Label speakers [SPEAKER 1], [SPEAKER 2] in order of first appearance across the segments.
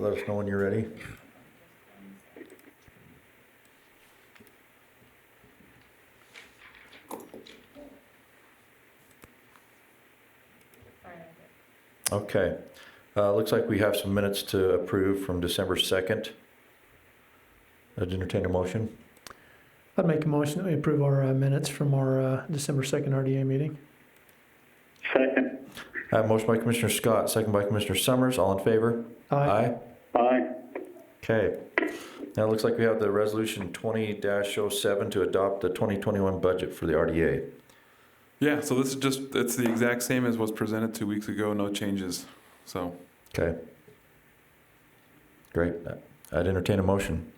[SPEAKER 1] Let us know when you're ready. Okay, uh, looks like we have some minutes to approve from December second. I'd entertain a motion.
[SPEAKER 2] I'd make a motion that we approve our uh, minutes from our uh, December 2nd RDA meeting.
[SPEAKER 3] Second.
[SPEAKER 1] I have a Uh, motion by Commissioner Scott, second by Commissioner Summers, all in favor? Aye.
[SPEAKER 3] Aye.
[SPEAKER 1] Okay. Now it looks like we have the resolution twenty 7 to adopt the twenty twenty-one budget for the RDA.
[SPEAKER 4] Yeah, so this is just, it's the exact same as was presented two weeks ago, no changes. So,
[SPEAKER 1] Okay. Great. I'd entertain a motion.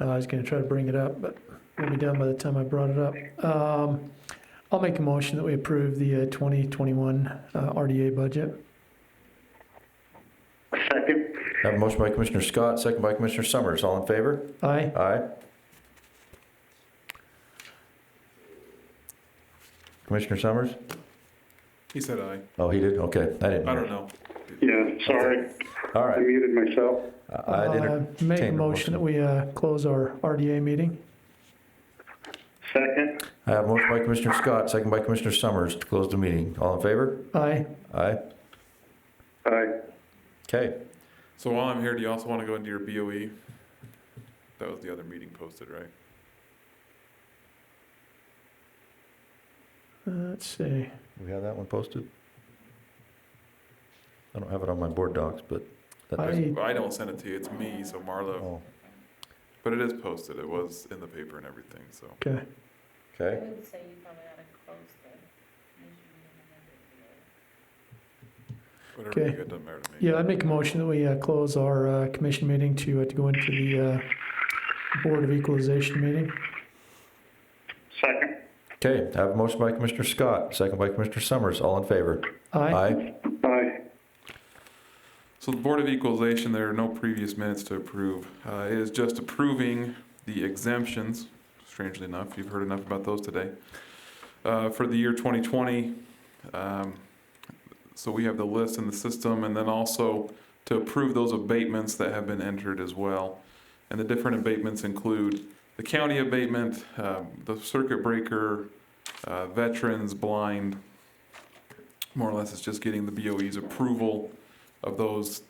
[SPEAKER 2] Uh, I was going to try to bring it up, but we'll be done by the time I brought it up. Um, I'll make a motion that we approve the uh, 2021 uh, RDA budget.
[SPEAKER 3] Second.
[SPEAKER 1] I have a motion by Commissioner Scott, second by Commissioner Summers, all in favor?
[SPEAKER 2] Aye.
[SPEAKER 1] Aye. Commissioner Summers?
[SPEAKER 4] he said aye.
[SPEAKER 1] Oh, he did? Okay, I didn't.
[SPEAKER 4] I don't know.
[SPEAKER 3] Yeah, sorry,
[SPEAKER 1] All
[SPEAKER 3] I
[SPEAKER 1] right.
[SPEAKER 3] muted myself.
[SPEAKER 1] I- I'd
[SPEAKER 2] Uh, Make a
[SPEAKER 1] entertain a
[SPEAKER 2] motion that we uh, close our RDA meeting.
[SPEAKER 3] Second.
[SPEAKER 4] Uh,
[SPEAKER 1] I have a motion by Commissioner Scott, second by Commissioner Summers to close the meeting. All in favor?
[SPEAKER 2] Aye.
[SPEAKER 1] Aye.
[SPEAKER 3] Aye.
[SPEAKER 1] Okay.
[SPEAKER 4] So while I'm here, do you also want to go into your BOE? That was the other meeting posted, right?
[SPEAKER 2] Uh, Let's see.
[SPEAKER 1] We have that one posted? I don't have it on my board docs, but. that-
[SPEAKER 2] Aye. Hey.
[SPEAKER 4] Well, I don't send it to you, it's me, so Marlo.
[SPEAKER 1] Oh,
[SPEAKER 4] But it is posted, it was in the paper and everything, so.
[SPEAKER 2] Okay.
[SPEAKER 5] I
[SPEAKER 1] Okay.
[SPEAKER 5] would say you probably ought to close the meeting and then
[SPEAKER 4] Whatever you
[SPEAKER 2] Okay.
[SPEAKER 4] get doesn't matter to me.
[SPEAKER 2] Yeah, I'd make a motion that we uh, close our uh, commission meeting to uh, to go into the uh, Board of Equalization meeting.
[SPEAKER 3] Second.
[SPEAKER 1] Okay, I have a motion by Commissioner Scott, second by Commissioner Summers. All in favor?
[SPEAKER 2] Aye.
[SPEAKER 3] Aye.
[SPEAKER 4] So the Board of Equalization, there are no previous minutes to approve. Uh, It is just approving the exemptions, strangely enough, you've heard enough about those today, uh, for the year 2020. Um, So we have the list in the system, and then also to approve those abatements that have been entered as well. And the different abatements include the county abatement, um, the circuit breaker, uh, veterans, blind. More or less, it's just getting the BOE's approval of those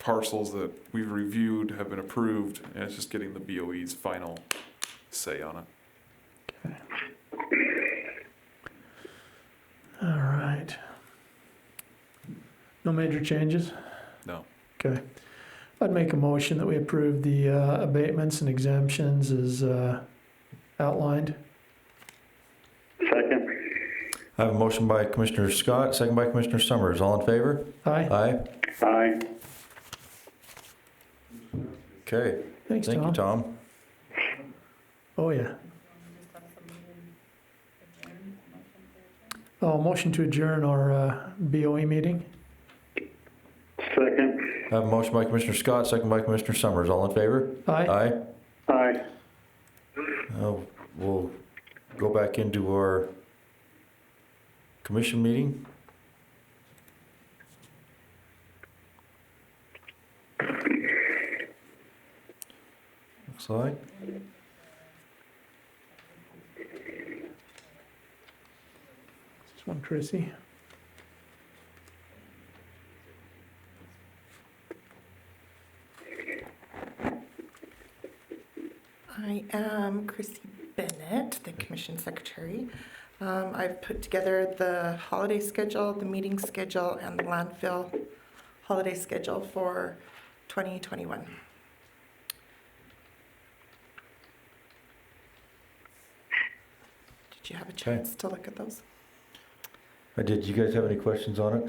[SPEAKER 4] parcels that we've reviewed have been approved, and it's just getting the BOE's final say on it.
[SPEAKER 2] All right. No major changes?
[SPEAKER 4] No.
[SPEAKER 2] Okay. I'd make a motion that we approve the uh, abatements and exemptions as uh, outlined.
[SPEAKER 3] Second.
[SPEAKER 1] I have a motion by Commissioner Scott, second by Commissioner Summers. All in favor?
[SPEAKER 2] Aye.
[SPEAKER 1] Aye.
[SPEAKER 3] Aye.
[SPEAKER 1] Okay,
[SPEAKER 2] Thanks,
[SPEAKER 1] thank you,
[SPEAKER 2] Tom.
[SPEAKER 1] Tom.
[SPEAKER 2] Oh,
[SPEAKER 5] we
[SPEAKER 2] yeah.
[SPEAKER 5] just have some meeting adjourned, motion to adjourn.
[SPEAKER 2] Oh, motion to adjourn our uh, BOE meeting.
[SPEAKER 3] Second.
[SPEAKER 1] I have a motion by Commissioner Scott, second by Commissioner Summers. All in favor?
[SPEAKER 2] Aye.
[SPEAKER 1] Aye.
[SPEAKER 3] Aye.
[SPEAKER 1] Uh, We'll go back into our commission meeting. Looks like.
[SPEAKER 2] Just one, Chrissy.
[SPEAKER 6] I am Chrissy Bennett, the Commission Secretary. Um, I've put together the holiday schedule, the meeting schedule, and the landfill holiday schedule for 2021. Did you have a chance to look at those?
[SPEAKER 1] I did, you guys have any questions on it?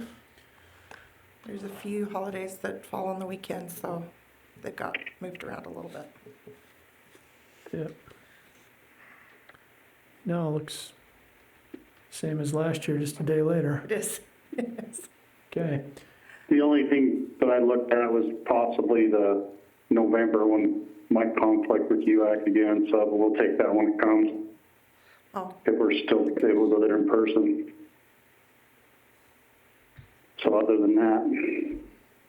[SPEAKER 6] There's a few holidays that fall on the weekend, so they got moved around a little bit.
[SPEAKER 2] Yep. No, looks same as last year, just a day later.
[SPEAKER 6] It is, it is.
[SPEAKER 2] Okay.
[SPEAKER 3] The only thing that I looked at was possibly the November one might conflict with UAC again, so we'll take that when it comes,
[SPEAKER 6] Oh,
[SPEAKER 3] if we're still able to go there in person. So other than that,